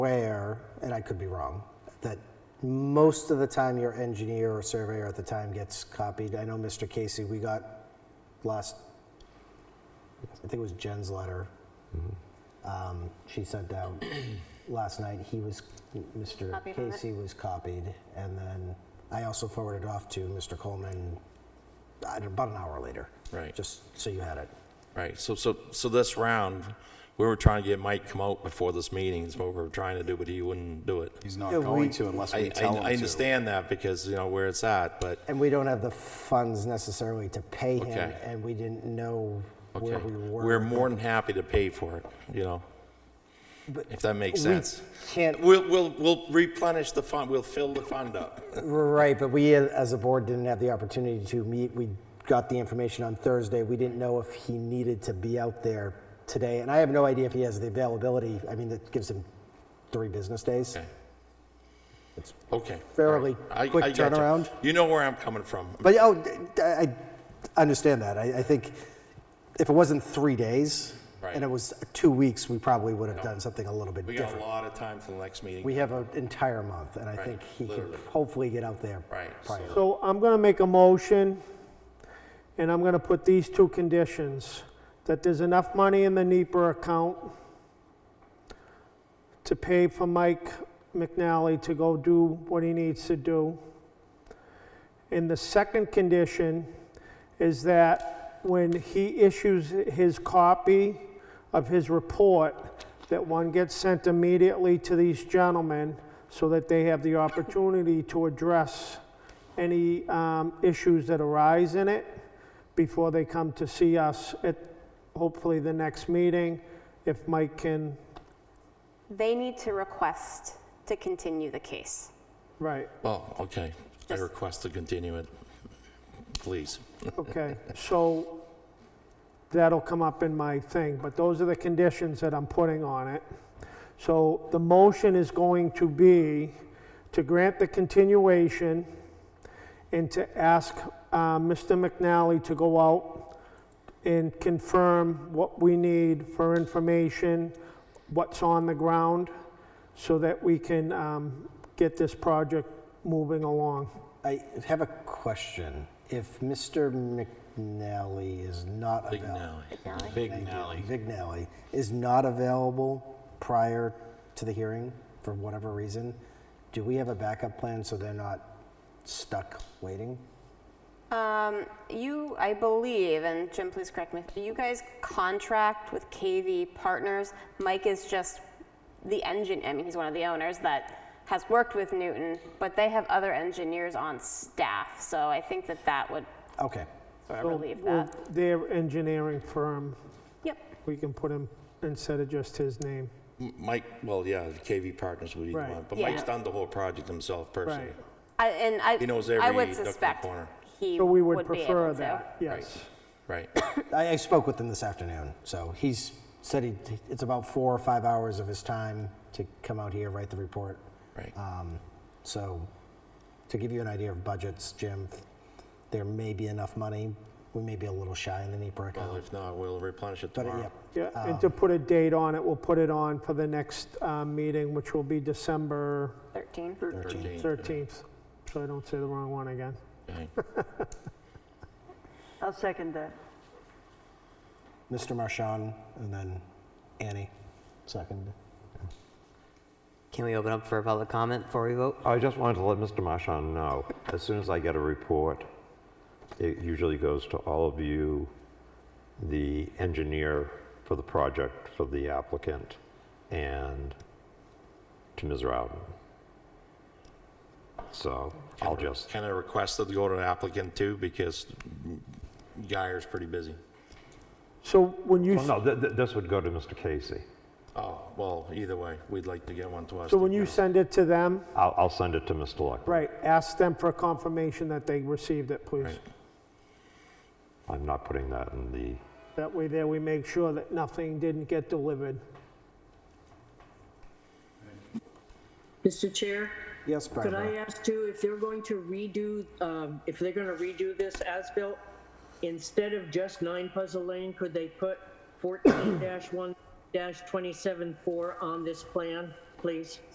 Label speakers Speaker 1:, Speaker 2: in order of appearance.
Speaker 1: aware, and I could be wrong, that most of the time your engineer or surveyor at the time gets copied. I know Mr. Casey, we got last, I think it was Jen's letter. Um, She sent out last night, he was, Mr.
Speaker 2: Copied on it.
Speaker 1: Casey was copied. And then I also forwarded off to Mr. Coleman uh, about an hour later.
Speaker 3: Right.
Speaker 1: Just so you had it.
Speaker 3: Right, so, so, so this round, we were trying to get Mike come out before this meeting, is what we were trying to do, but he wouldn't do it.
Speaker 4: He's not
Speaker 1: Yeah, we-
Speaker 4: going to unless we
Speaker 3: I, I,
Speaker 4: tell him to.
Speaker 3: I understand that because, you know, where it's at, but,
Speaker 1: And we don't have the funds necessarily to pay him,
Speaker 3: Okay.
Speaker 1: and we didn't know
Speaker 3: okay.
Speaker 1: where we were.
Speaker 3: We're more than happy to pay for it, you know? If that makes sense.
Speaker 1: can't-
Speaker 3: We'll, we'll, we'll replenish the fund, we'll fill the fund up.
Speaker 1: Right, but we, as a board, didn't have the opportunity to meet. We got the information on Thursday. We didn't know if he needed to be out there today, and I have no idea if he has the availability. I mean, that gives him three business days.
Speaker 3: Okay. Okay.
Speaker 1: fairly
Speaker 3: all right. I-
Speaker 1: quick
Speaker 3: I gotcha.
Speaker 1: turnaround.
Speaker 3: You know where I'm coming from.
Speaker 1: But, oh, d- d- I I understand that. I I think if it wasn't three days, and it
Speaker 3: Right.
Speaker 1: was two weeks, we probably would have done something a little bit
Speaker 3: We
Speaker 1: different.
Speaker 3: got a lot of time till the next meeting.
Speaker 1: We have an entire month, and I
Speaker 3: Right,
Speaker 1: think he could
Speaker 3: literally.
Speaker 1: hopefully get out there
Speaker 3: Right,
Speaker 1: prior.
Speaker 5: So I'm going to make a motion, and I'm going to put these two conditions, that there's enough money in the NEPA account to pay for Mike McNally to go do what he needs to do. And the second condition is that when he issues his copy of his report, that one gets sent immediately to these gentlemen so that they have the opportunity to address any um, issues that arise in it before they come to see us at hopefully the next meeting, if Mike can,
Speaker 2: They need to request to continue the case.
Speaker 5: right,
Speaker 3: Well, Oh, okay. I
Speaker 2: Just-
Speaker 3: request to continue it, please.
Speaker 5: okay. So that'll come up in my thing, but those are the conditions that I'm putting on it. So the motion is going to be to grant the continuation and to ask uh, Mr. McNally to go out and confirm what we need for information, what's on the ground, so that we can um, get this project moving along.
Speaker 1: I have a question. If Mr. McNally is not
Speaker 3: Big
Speaker 1: available,
Speaker 3: no.
Speaker 1: Big McNally is not available prior to the hearing for whatever reason, do we have a backup plan so they're not stuck waiting?
Speaker 2: Um, You, I believe, and Jim, please correct me, you guys contract with KV Partners. Mike is just the engine, I mean, he's one of the owners that has worked with Newton, but they have other engineers on staff, so I think that that would
Speaker 1: Okay.
Speaker 2: sort of
Speaker 5: So
Speaker 2: relieve
Speaker 5: we'll-
Speaker 2: that.
Speaker 5: Their engineering firm,
Speaker 2: Yep,
Speaker 5: we can put him, instead of just his name.
Speaker 3: M- Mike, well, yeah, the KV Partners would be the
Speaker 5: Right.
Speaker 3: one, but
Speaker 2: Yeah.
Speaker 3: Mike's done the whole project himself personally.
Speaker 5: Right.
Speaker 2: I- and I,
Speaker 3: He knows
Speaker 2: I
Speaker 3: every
Speaker 2: would
Speaker 3: duck in the
Speaker 2: suspect
Speaker 3: corner.
Speaker 2: he
Speaker 5: So we would
Speaker 2: would be
Speaker 5: prefer
Speaker 2: able to.
Speaker 5: that, yes.
Speaker 3: Right,
Speaker 1: I, I spoke with him this afternoon, so he's said he, it's about four or five hours of his time to come out here, write the report.
Speaker 3: right.
Speaker 1: Um, So, to give you an idea of budgets, Jim, there may be enough money. We may be a little shy in the NEPA
Speaker 3: Well,
Speaker 1: account.
Speaker 3: if not, we'll replenish it
Speaker 1: But uh,
Speaker 3: tomorrow.
Speaker 1: yeah,
Speaker 5: Yeah, and to put a date on it, we'll put it on for the next uh, meeting, which will be December
Speaker 2: 13.
Speaker 3: 13th.
Speaker 5: 13th, so I don't say the wrong one again.
Speaker 3: Okay.
Speaker 6: I'll second that.
Speaker 1: Mr. Marchand and then Annie, second.
Speaker 7: Can we open up for a public comment before we vote?
Speaker 8: I just wanted to let Mr. Marchand know, as soon as I get a report, it usually goes to all of you, the engineer for the project, for the applicant, and to Ms. Rowden. So I'll just,
Speaker 3: Can I request that go to the applicant too, because Guyer's pretty busy.
Speaker 5: So when you,
Speaker 8: well, no, th- th- this would go to Mr. Casey.
Speaker 3: Oh, well, either way, we'd like to get one to us.
Speaker 5: so
Speaker 3: to
Speaker 5: when you
Speaker 3: go.
Speaker 5: send it to them,
Speaker 8: I'll, I'll send it to Mr. Luckman.
Speaker 5: right, ask them for confirmation that they received it, please.
Speaker 3: Right.
Speaker 8: I'm not putting that in the,
Speaker 5: That way there, we make sure that nothing didn't get delivered.
Speaker 9: Mr. Chair,
Speaker 1: Yes,
Speaker 9: could I
Speaker 1: Barbara?
Speaker 9: ask you if they're going to redo, um, if they're going to redo this as-built, instead of just 9 Puzzle Lane, could they put 14-1-27-4 on this plan? please?